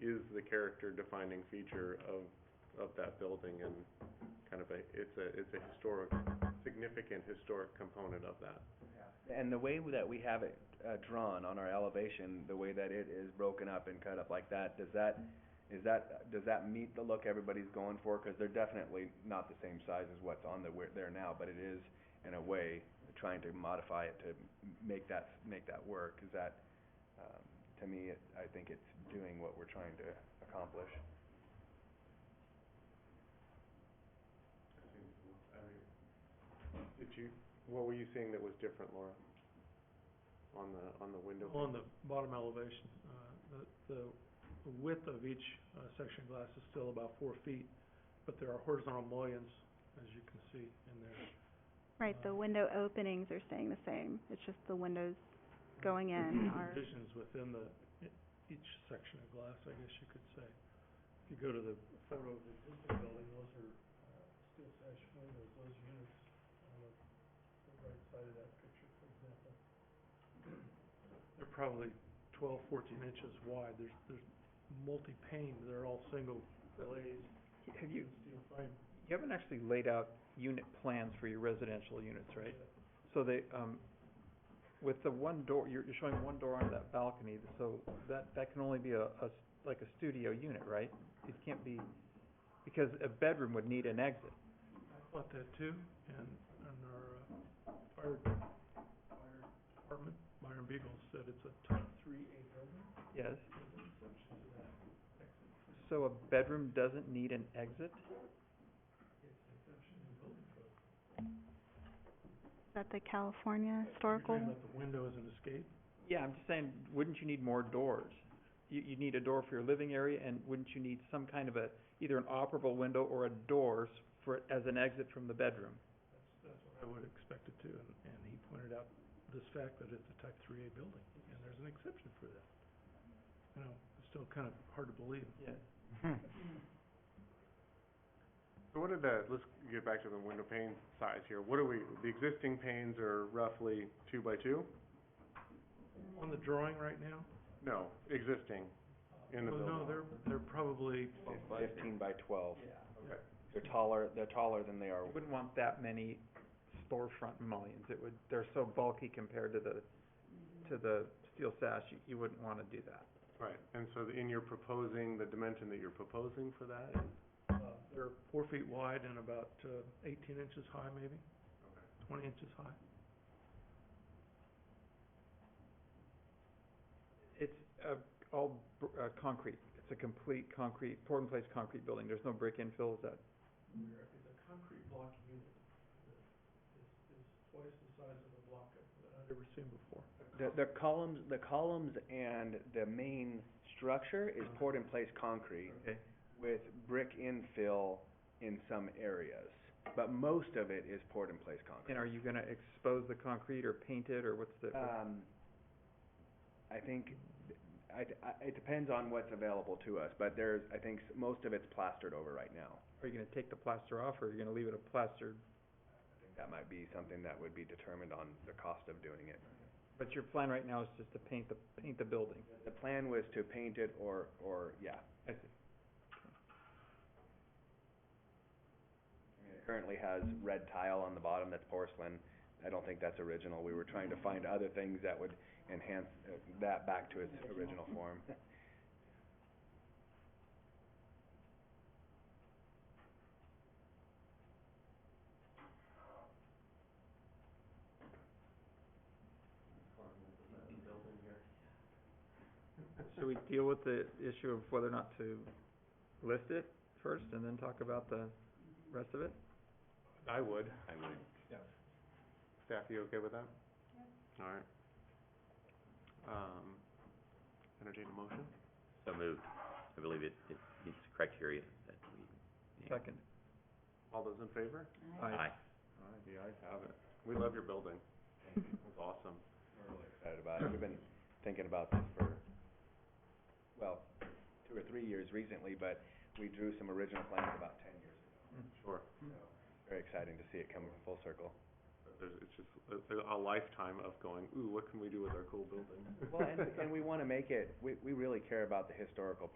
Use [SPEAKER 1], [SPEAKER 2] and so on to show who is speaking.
[SPEAKER 1] is the character defining feature of, of that building and kind of a, it's a, it's a historic, significant historic component of that.
[SPEAKER 2] And the way that we have it uh, drawn on our elevation, the way that it is broken up and cut up like that, does that, is that, does that meet the look everybody's going for? Because they're definitely not the same size as what's on the, where- there now, but it is, in a way, trying to modify it to m- make that, make that work. Is that, um, to me, it- I think it's doing what we're trying to accomplish.
[SPEAKER 1] Did you, what were you seeing that was different, Laura? On the, on the window?
[SPEAKER 3] On the bottom elevation, uh, the, the width of each, uh, section glass is still about four feet, but there are horizontal mullions, as you can see in there.
[SPEAKER 4] Right, the
[SPEAKER 3] Um,
[SPEAKER 4] window openings are staying the same, it's just the windows going in
[SPEAKER 5] Mm-hmm.
[SPEAKER 3] Mm-hmm.
[SPEAKER 4] are,
[SPEAKER 3] Divisions within the, e- each section of glass, I guess you could say. If you go to the photo of the existing building, those are, uh, steel sash windows, those units on the, the right side of that picture, for example. They're probably twelve, fourteen inches wide, there's, there's multi-pane, they're all single glazed,
[SPEAKER 5] Have you,
[SPEAKER 3] steel frame.
[SPEAKER 5] you haven't actually laid out unit plans for your residential units, right? So they, um, with the one door, you're, you're showing one door onto that balcony, so that, that can only be a, a s- like a studio unit, right? It can't be, because a bedroom would need an exit.
[SPEAKER 3] About that too, and, and our, uh, fire, fire department, Byron Beagle said it's a type three A building.
[SPEAKER 5] Yes. So a bedroom doesn't need an exit?
[SPEAKER 4] is that the California historical?
[SPEAKER 3] You're talking about the window as an escape?
[SPEAKER 5] Yeah, I'm just saying, wouldn't you need more doors? You, you need a door for your living area, and wouldn't you need some kind of a, either an operable window or a doors for, as an exit from the bedroom?
[SPEAKER 3] That's what I would expect it to, and, and he pointed out this fact that it's a type three A building, and there's an exception for that. You know, it's still kind of hard to believe.
[SPEAKER 5] Yes.
[SPEAKER 1] So what are the, let's get back to the window pane size here. What are we, the existing panes are roughly two by two?
[SPEAKER 3] On the drawing right now?
[SPEAKER 1] No, existing in the
[SPEAKER 3] Well,
[SPEAKER 1] building.
[SPEAKER 3] no, they're, they're probably, uh,
[SPEAKER 2] Fifteen by twelve.
[SPEAKER 3] okay.
[SPEAKER 2] They're taller, they're taller than they are
[SPEAKER 5] I wouldn't want that many storefront mullions, it would, they're so bulky compared to the, to the steel sash, you, you wouldn't wanna do that.
[SPEAKER 1] Right, and so the- in your proposing, the dimension that you're proposing for that is?
[SPEAKER 3] uh, they're four feet wide and about, uh, eighteen inches high maybe, twenty inches high.
[SPEAKER 5] It's, uh, all, br- uh, concrete, it's a complete concrete, poured in place concrete building, there's no brick infill, is that?
[SPEAKER 3] It's a concrete block unit that is, is twice the size of a block that I've ever seen before.
[SPEAKER 2] The, the columns, the columns and the main structure is poured in place concrete
[SPEAKER 5] Uh-huh. Okay.
[SPEAKER 2] with brick infill in some areas, but most of it is poured in place concrete.
[SPEAKER 5] And are you gonna expose the concrete or paint it, or what's the?
[SPEAKER 2] Um, I think, I, I, it depends on what's available to us, but there's, I think s- most of it's plastered over right now.
[SPEAKER 5] Are you gonna take the plaster off, or are you gonna leave it a plastered?
[SPEAKER 2] That might be something that would be determined on the cost of doing it.
[SPEAKER 5] But your plan right now is just to paint the, paint the building.
[SPEAKER 2] The plan was to paint it or, or, yeah.
[SPEAKER 5] I see.
[SPEAKER 2] It currently has red tile on the bottom that's porcelain. I don't think that's original. We were trying to find other things that would enhance uh, that back to its original form.
[SPEAKER 5] Should we deal with the issue of whether or not to list it first, and then talk about the rest of it?
[SPEAKER 1] I would.
[SPEAKER 2] I would.
[SPEAKER 1] Staff, you okay with that? All right. Um, entertain a motion?
[SPEAKER 6] So moved. I believe it, it meets the criteria that we.
[SPEAKER 5] Second.
[SPEAKER 1] All those in favor?
[SPEAKER 6] Aye.
[SPEAKER 1] All right, the ayes have it. We love your building. It's awesome.
[SPEAKER 2] We're really excited about it. We've been thinking about this for, well, two or three years recently, but we drew some original plans about ten years ago.
[SPEAKER 1] Sure.
[SPEAKER 2] Very exciting to see it come full circle.
[SPEAKER 1] There's, it's just a, a lifetime of going, ooh, what can we do with our cool building?
[SPEAKER 2] Well, and, and we wanna make it, we, we really care about the historical